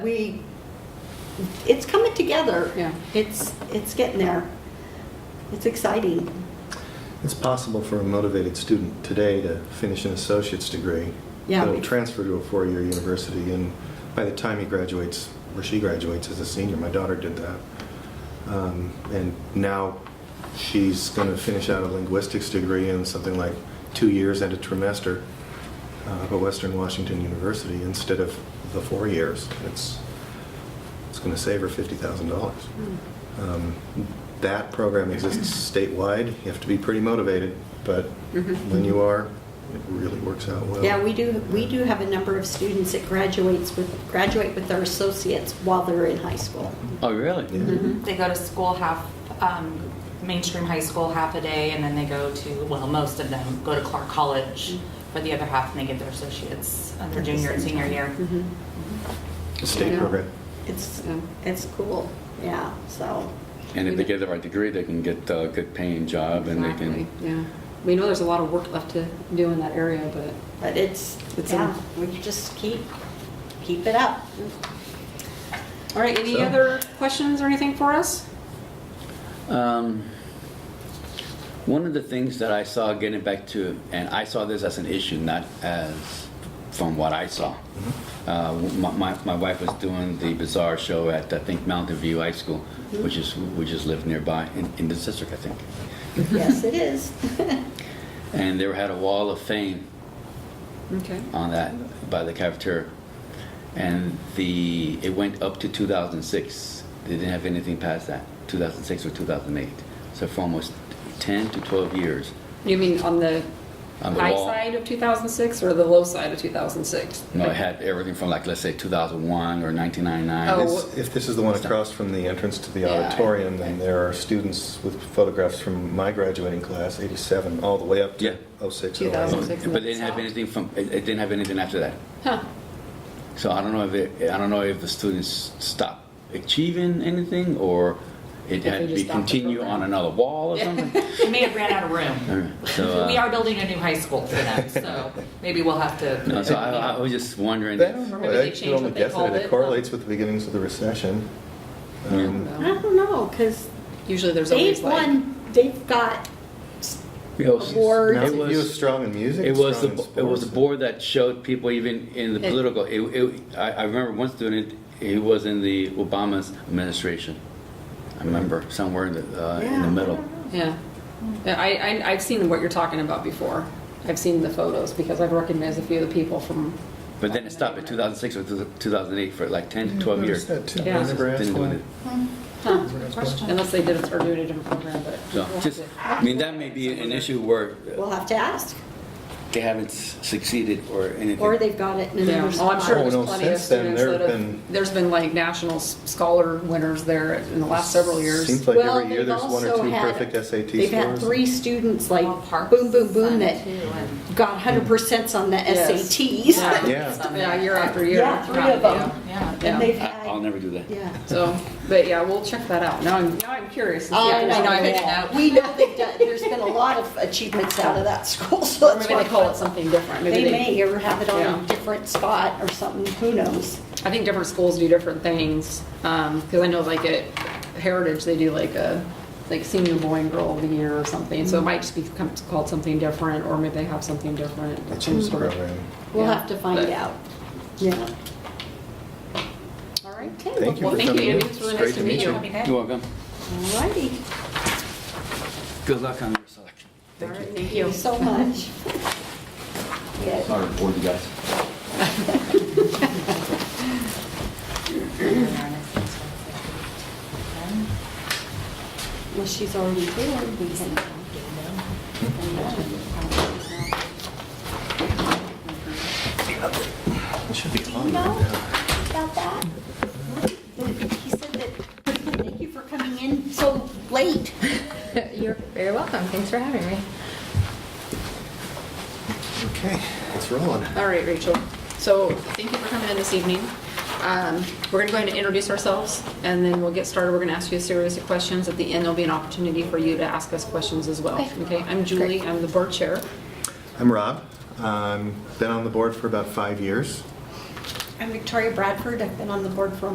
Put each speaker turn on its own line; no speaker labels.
We, it's coming together.
Yeah.
It's, it's getting there. It's exciting.
It's possible for a motivated student today to finish an associate's degree.
Yeah.
That'll transfer to a four-year university, and by the time he graduates, or she graduates as a senior, my daughter did that. Um, And now she's going to finish out a linguistics degree in something like two years and a trimester uh, at Western Washington University instead of the four years. It's, it's going to save her $50,000.
Mm-hmm.
Um, That program exists statewide. You have to be pretty motivated, but when you are, it really works out well.
Yeah, we do, we do have a number of students that graduates with, graduate with their associates while they're in high school. Mm-hmm.
Oh, really?
Yeah.
They go to school half, um, mainstream high school half a day, and then they go to, well, most of them go to Clark College for the other half, and they get their associates uh, their
At the
junior and
same
senior year.
Mm-hmm.
State
Yeah.
program.
It's, it's cool, yeah, so.
And if they get the right degree, they can get a good paying job and they
Exactly,
can,
yeah. We know there's a lot of work left to do in that area, but
But it's,
It's
yeah,
enough.
we just keep, keep it up.
All right, any
So-
other questions or anything for us?
Um, One of the things that I saw, getting back to, and I saw this as an issue, not as from what I saw. Uh, my, my, my wife was doing the bazaar show at I think Mountain View High School, which is we just live nearby in, in this district, I think.
Yes, it is.
And they had a wall of fame
Okay.
on that by the cafeteria, and the it went up to 2006. They didn't have anything past that, 2006 or 2008. So for almost 10 to 12 years,
You mean on the
On the
high
wall.
side of 2006 or the low side of 2006?
you know, it had everything from like let's say 2001 or 1999.
Oh.
It's- If this is the one across from the entrance to the
Yeah, I-
auditorium, then there are students with photographs from my graduating class, 87, all the way up
Yeah.
to 06,
2006.
08.
But they didn't have anything from it, it didn't have anything after that.
Huh,
So I don't know if it, I don't know if the students stopped achieving anything or it
If they
had to
just
be
stopped the
continue
program.
on another wall or something.
They may have ran out of room.
So uh,
We are building a new high school for them, so maybe we'll have to.
no, so I, I was just
I
wondering. if-
don't know.
Maybe they
I could
changed
only
what they
guess
called
It
it.
correlates with the beginnings of the recession.
Hmm.
Um,
I
well,
don't know, because
Usually there's always
they've
like,
won, they've got,
It was-
Award.
it
It
was-
was strong in music.
It was the,
strong in
it was the
sports.
board that showed people even in the
It-
political, it, it, I, I remember one student, he was in the Obama's administration. I remember, somewhere in the, uh, in
Yeah, I
the middle.
don't
yeah. Yeah, I, I, I've seen what you're talking about before. I've seen the photos because I've recognized a few of the people from,
But then it stopped at two thousand six or two thousand eight for like ten to
Mm-hmm.
twelve years.
Noticed that too.
Yeah.
Brenda Grass
Didn't do
one.
it.
huh,
Question.
unless they did it or doing a different program, but.
So,
we'll have
just,
to-
I mean, that may be an issue where
we'll have to ask,
they haven't s- succeeded or anything.
or they've got it in
Yeah,
another
well,
spot.
I'm sure
Oh,
there's
no,
plenty of
since then,
students
there
that
have
have,
been-
there's been like national s- scholar winners there in the last several years.
Seems like
Well,
every year
they've
there's one or
also
two
had-
perfect SAT scores.
They've had three students like
Well, Parks
boom, boom, boom
son,
that
too, and-
got hundred percents on the
Yes.
SATs.
Yeah.
Yeah, year after year.
Yeah, three of them.
Yeah.
Yeah.
And they've
I- I'll
had,
never do that.
yeah.
So, but yeah, we'll check that out. Now I'm, now I'm curious. to see
Oh, I
if there's
know,
anything-
yeah. We know they've done, there's been a lot of achievements out of that school, so
Or
that's
maybe
why.
they call it something different. Maybe
They may, or have it on
Yeah.
a different spot or something, who knows?
I think different schools do different things. Um, cause I know like at Heritage, they do like a, like senior boy and girl of the year or something. So it might just be com- called something different, or maybe they have something different.
They
some
changed the
sort of-
program.
We'll
Yeah,
have to find
but-
out. Yeah.
All right.
Okay,
Thank you
Well,
for
thank you,
coming in.
Andy. It's really
It's
nice
great
to meet you.
Okay.
You're welcome.
all righty.
Good luck on your selection.
All right, Thank you so much. Yeah.
Sorry to bore you guys.
Well, she's already doing these.
It should be
You
on
know
right now.
about that? He said that, thank you for coming in so late.
You're very welcome. Thanks for having me.
Okay, it's rolling.
All right, Rachel. So thank you for coming in this evening. Um, We're going to go ahead and introduce ourselves, and then we'll get started. We're going to ask you a series of questions. At the end, there'll be an opportunity for you to ask us questions as well.
Okay.
Okay, I'm Julie,
Great.
I'm the board chair.
I'm Rob. Um, been on the board for about five years.
I'm Victoria Bradford. I've been on the board for